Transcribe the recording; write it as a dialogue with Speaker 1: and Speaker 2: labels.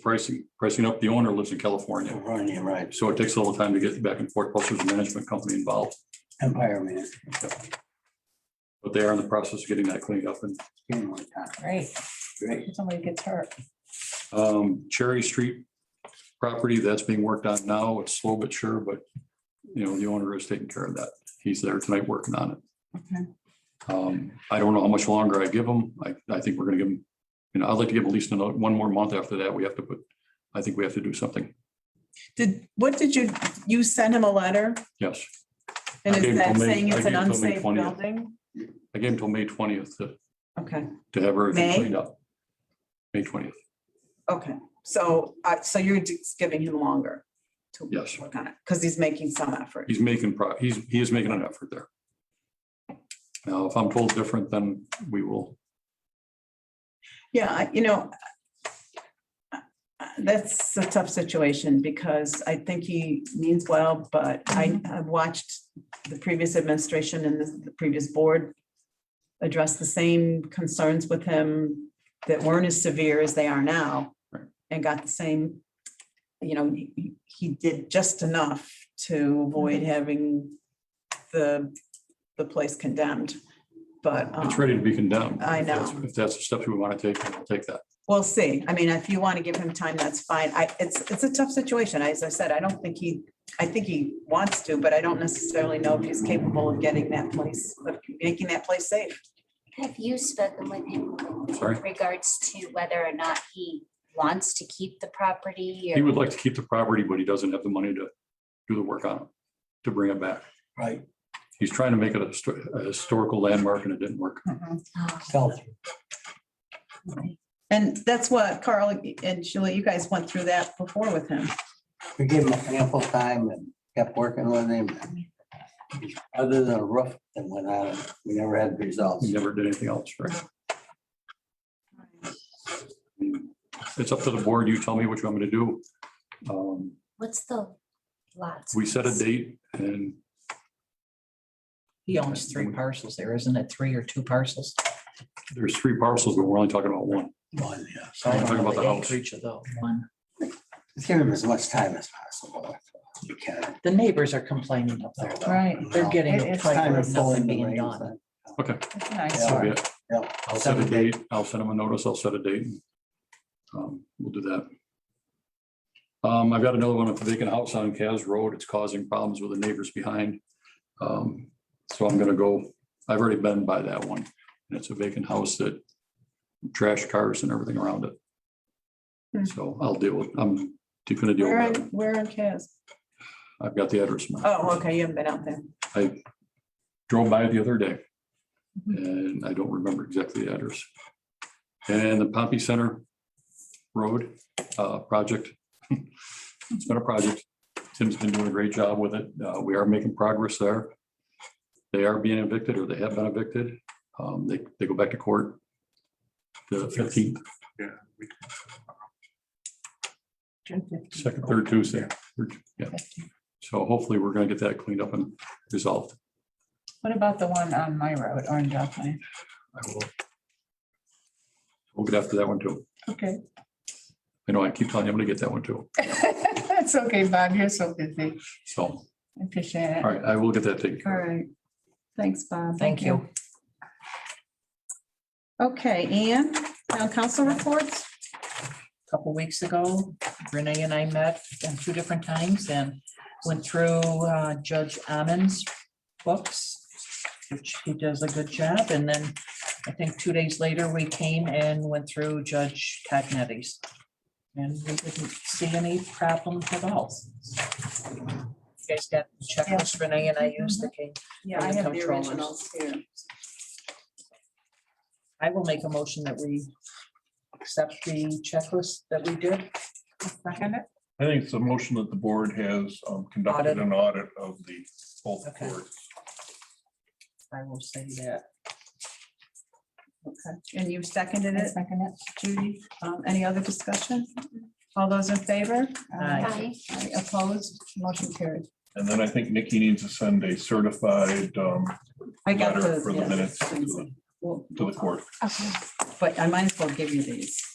Speaker 1: pricing, pricing up. The owner lives in California.
Speaker 2: Running, right,
Speaker 1: So it takes a little time to get back and forth, plus there's a management company involved,
Speaker 2: Empire Minute.
Speaker 1: but they are in the process of getting that cleaned up. And
Speaker 3: Great.
Speaker 2: Great.
Speaker 3: If Somebody gets hurt.
Speaker 1: um, Cherry Street property, that's being worked on now. It's slow but sure, but you know, the owner is taking care of that. He's there tonight working on it.
Speaker 3: Okay.
Speaker 1: Um, I don't know how much longer I give them. I, I think we're gonna give them, you know, I'd like to give at least another, one more month after that. We have to put, I think we have to do something.
Speaker 4: Did, what did you, you sent him a letter
Speaker 1: Yes.
Speaker 4: and
Speaker 1: I gave
Speaker 4: is
Speaker 1: him
Speaker 4: that
Speaker 1: till May-
Speaker 4: saying
Speaker 1: I
Speaker 4: it's an
Speaker 1: gave him till May
Speaker 4: unsafe
Speaker 1: 20th.
Speaker 4: building?
Speaker 1: I gave him till May twentieth to,
Speaker 4: Okay,
Speaker 1: to have everything
Speaker 4: May?
Speaker 1: cleaned up. May twentieth,
Speaker 4: okay. So, uh, so you're just giving him longer to
Speaker 1: Yes.
Speaker 4: work on it because he's making some effort.
Speaker 1: he's making, pro- he's, he is making an effort there. Now, if I'm told different, then we will,
Speaker 4: Yeah, I- you know, uh, that's a tough situation because I think he means well, but I,
Speaker 1: Mm-hmm.
Speaker 4: I've watched the previous administration and the- the previous board address the same concerns with him that weren't as severe as they are now
Speaker 1: Right.
Speaker 4: and got the same, you know, he- he- he did just enough to avoid
Speaker 1: Mm-hmm.
Speaker 4: having the, the place condemned. But.
Speaker 1: it's
Speaker 4: um,
Speaker 1: ready to be condemned.
Speaker 4: I
Speaker 1: If that's-
Speaker 4: know.
Speaker 1: If that's the steps we want to take, then we'll take that.
Speaker 4: We'll see. I mean, if you want to give him time, that's fine. I, it's, it's a tough situation. As I said, I don't think he, I think he wants to, but I don't necessarily know if he's capable of getting that place, of making that place safe.
Speaker 5: Have you spoken with him
Speaker 1: I'm sorry.
Speaker 5: in regards to whether or not he wants to keep the property?
Speaker 1: He
Speaker 5: or-
Speaker 1: would like to keep the property, but he doesn't have the money to do the work on it, to bring it back.
Speaker 2: Right,
Speaker 1: He's trying to make it a histo- a historical landmark and it didn't work.
Speaker 3: Mm-hmm.
Speaker 5: Oh,
Speaker 2: felt,
Speaker 5: okay.
Speaker 4: And that's what Carl and Sheila, you guys went through that before with him.
Speaker 2: we gave him ample time and kept working with him. Other than a roof that went on, we never had results.
Speaker 1: He never did anything else, right? It's up to the board. You tell me what you want me to do. Um,
Speaker 5: What's the lots?
Speaker 1: We set a date and
Speaker 3: He owns three parcels there, isn't it? Three or two parcels?
Speaker 1: there's three parcels, but we're only talking about one.
Speaker 2: One, Oh, yeah. So
Speaker 1: I'm talking
Speaker 2: I
Speaker 1: about the house.
Speaker 3: Acreage of the one.
Speaker 2: Give him as much time as possible. if you can.
Speaker 3: The neighbors are complaining up there. though.
Speaker 4: Right.
Speaker 3: They're getting
Speaker 4: It
Speaker 3: a
Speaker 4: is
Speaker 3: plate
Speaker 2: Time to
Speaker 3: with
Speaker 2: fill in
Speaker 3: nothing
Speaker 2: the
Speaker 3: being
Speaker 2: reins.
Speaker 3: done.
Speaker 1: Okay,
Speaker 4: Nice.
Speaker 1: that'll be it.
Speaker 2: Yeah.
Speaker 1: I'll set a date. I'll send him a notice. I'll set a date. Um, We'll do that. Um, I've got another one, a vacant house on Cas Road. It's causing problems with the neighbors behind. Um, So I'm gonna go, I've already been by that one, and it's a vacant house that trash cars and everything around it.
Speaker 4: Hmm.
Speaker 1: So I'll deal with, I'm gonna deal
Speaker 4: Where,
Speaker 1: with
Speaker 4: in-
Speaker 1: it.
Speaker 4: where in Cas?
Speaker 1: I've got the address. now.
Speaker 4: Oh, okay, you haven't been out there.
Speaker 1: I drove by the other day. And I don't remember exactly the address. And the Pompey Center Road uh, project. It's been a project. Tim's been doing a great job with it. Uh, We are making progress there. They are being evicted or they have been evicted. Um, They, they go back to court. The fifteenth, second, third Tuesday. Third- yeah. So hopefully we're gonna get that cleaned up and resolved.
Speaker 3: What about the one on my road, Orange Off Lane?
Speaker 1: I will. We'll get after that one too.
Speaker 3: Okay.
Speaker 1: I know I keep telling you, I'm gonna get that one too.
Speaker 3: That's okay, Bob. You're so busy.
Speaker 1: So, all
Speaker 3: I Appreciate it.
Speaker 1: right, I will get that taken
Speaker 4: All
Speaker 1: care
Speaker 4: right. Thanks, Bob.
Speaker 3: Thank you.
Speaker 4: Okay, Ann, town council reports?
Speaker 3: couple weeks ago, Renee and I met um, two different times and went through uh, Judge Ammon's books, which he does a good job. And then I think two days later, we came and went through Judge Cagnetti's. And we didn't see any problems at all. You guys got the checklist Renee and I used that came.
Speaker 4: Yeah, I have the originals here.
Speaker 3: I will make a motion that we accept the checklist that we did. Second it.
Speaker 6: I think it's a motion that the board has um, conducted
Speaker 3: Audit.
Speaker 6: an audit of the both
Speaker 3: Okay.
Speaker 6: boards.
Speaker 3: I will say that.
Speaker 4: Okay, and you seconded it,
Speaker 3: Second it.
Speaker 4: Judy? Um, Any other discussion? All those in favor?
Speaker 3: Aye.
Speaker 5: Hi.
Speaker 4: Aye. Opposed? Motion carried.
Speaker 6: And then I think Nikki needs to send a certified um,
Speaker 4: I got
Speaker 6: Letter
Speaker 4: those.
Speaker 6: for the
Speaker 4: yes.
Speaker 6: minutes to the-
Speaker 4: We'll-
Speaker 6: to the court.
Speaker 5: Okay.
Speaker 4: But I might as well give you these.